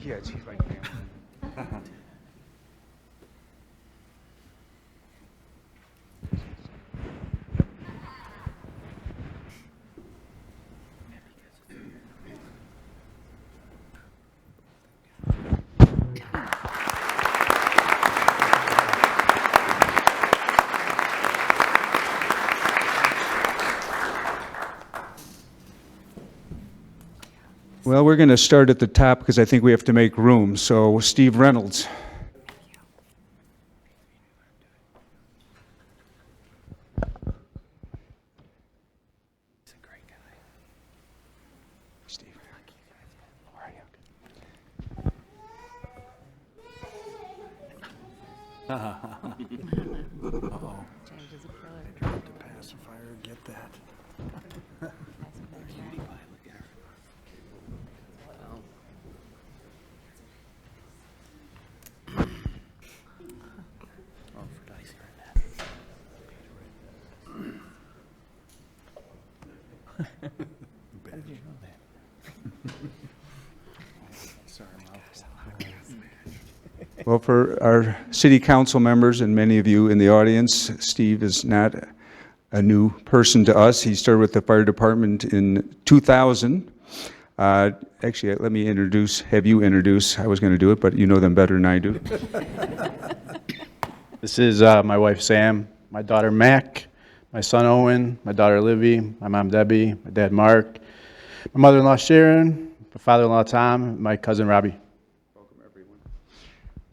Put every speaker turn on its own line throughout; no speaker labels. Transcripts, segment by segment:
kids right now.
Well, we're going to start at the top because I think we have to make room. So Steve Reynolds.
He's a great guy. Steve. How are you?
James is a killer.
Pacifier, get that.
Well, for our city council members and many of you in the audience, Steve is not a new person to us. He started with the fire department in 2000. Uh, Actually, let me introduce, have you introduce, I was going to do it, but you know them better than I do.
This is uh, my wife Sam, my daughter Mac, my son Owen, my daughter Livy, my mom Debbie, my dad Mark, my mother-in-law Sharon, my father-in-law Tom, and my cousin Robbie.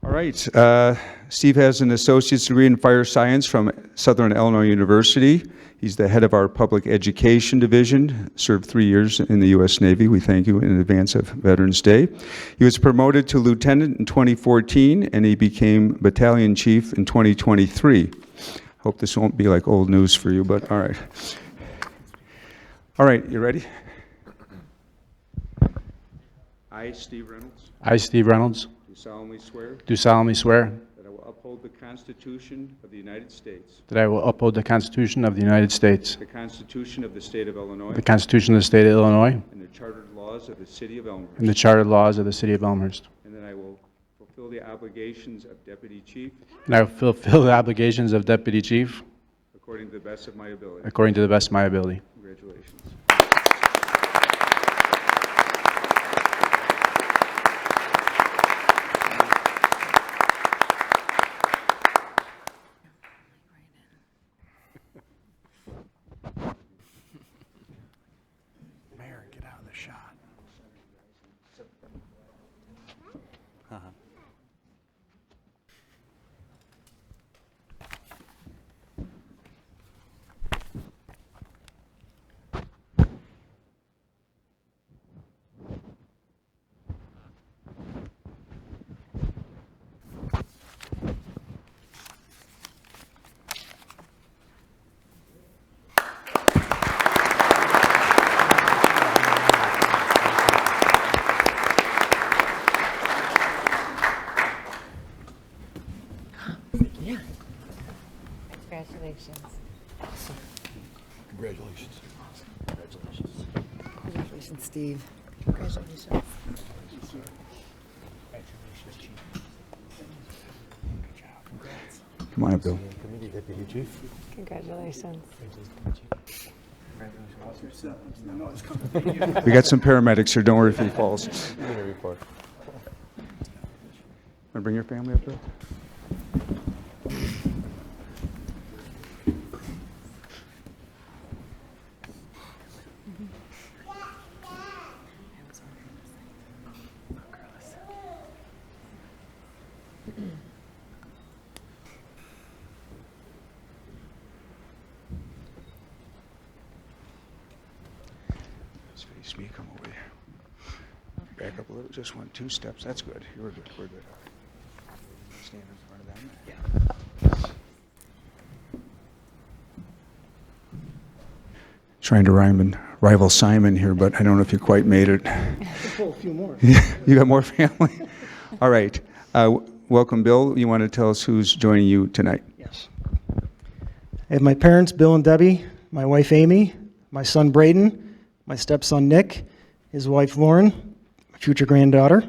All right. uh, Steve has an associate's degree in fire science from Southern Illinois University. He's the head of our public education division, served three years in the U.S. Navy. We thank you in advance of Veterans Day. He was promoted to lieutenant in 2014, and he became battalion chief in 2023. Hope this won't be like old news for you, but all right. All right, you ready? I, Steve Reynolds,
I, Steve Reynolds,
do solemnly swear.
do solemnly swear
That I will uphold the Constitution of the United States,
that I will uphold the Constitution of the United States,
the Constitution of the State of Illinois,
the Constitution of the State of Illinois,
and the chartered laws of the City of
and
Elmhurst,
the chartered laws of the City of Elmhurst,
and that I will fulfill the obligations of Deputy Chief
and I will fulfill the obligations of Deputy Chief
according to the best of my ability.
according to the best of my ability.
Congratulations.
Mayor, get out of the shot.
Congratulations.
Congratulations.
Congratulations, Steve.
Come on up, Bill.
Congratulations.
We got some paramedics here, don't worry if he falls. Want to bring your family up, Bill? Just face me, come over here. Back up a little, just one, two steps, that's good. You're good, we're good. Stand in front of them. Yeah. Trying to rhyme and rival Simon here, but I don't know if you quite made it. a few more. You got more family? All right. Uh, w- Welcome, Bill. You want to tell us who's joining you tonight?
Yes. I have my parents, Bill and Debbie, my wife Amy, my son Braden, my stepson Nick, his wife Lauren, my future granddaughter,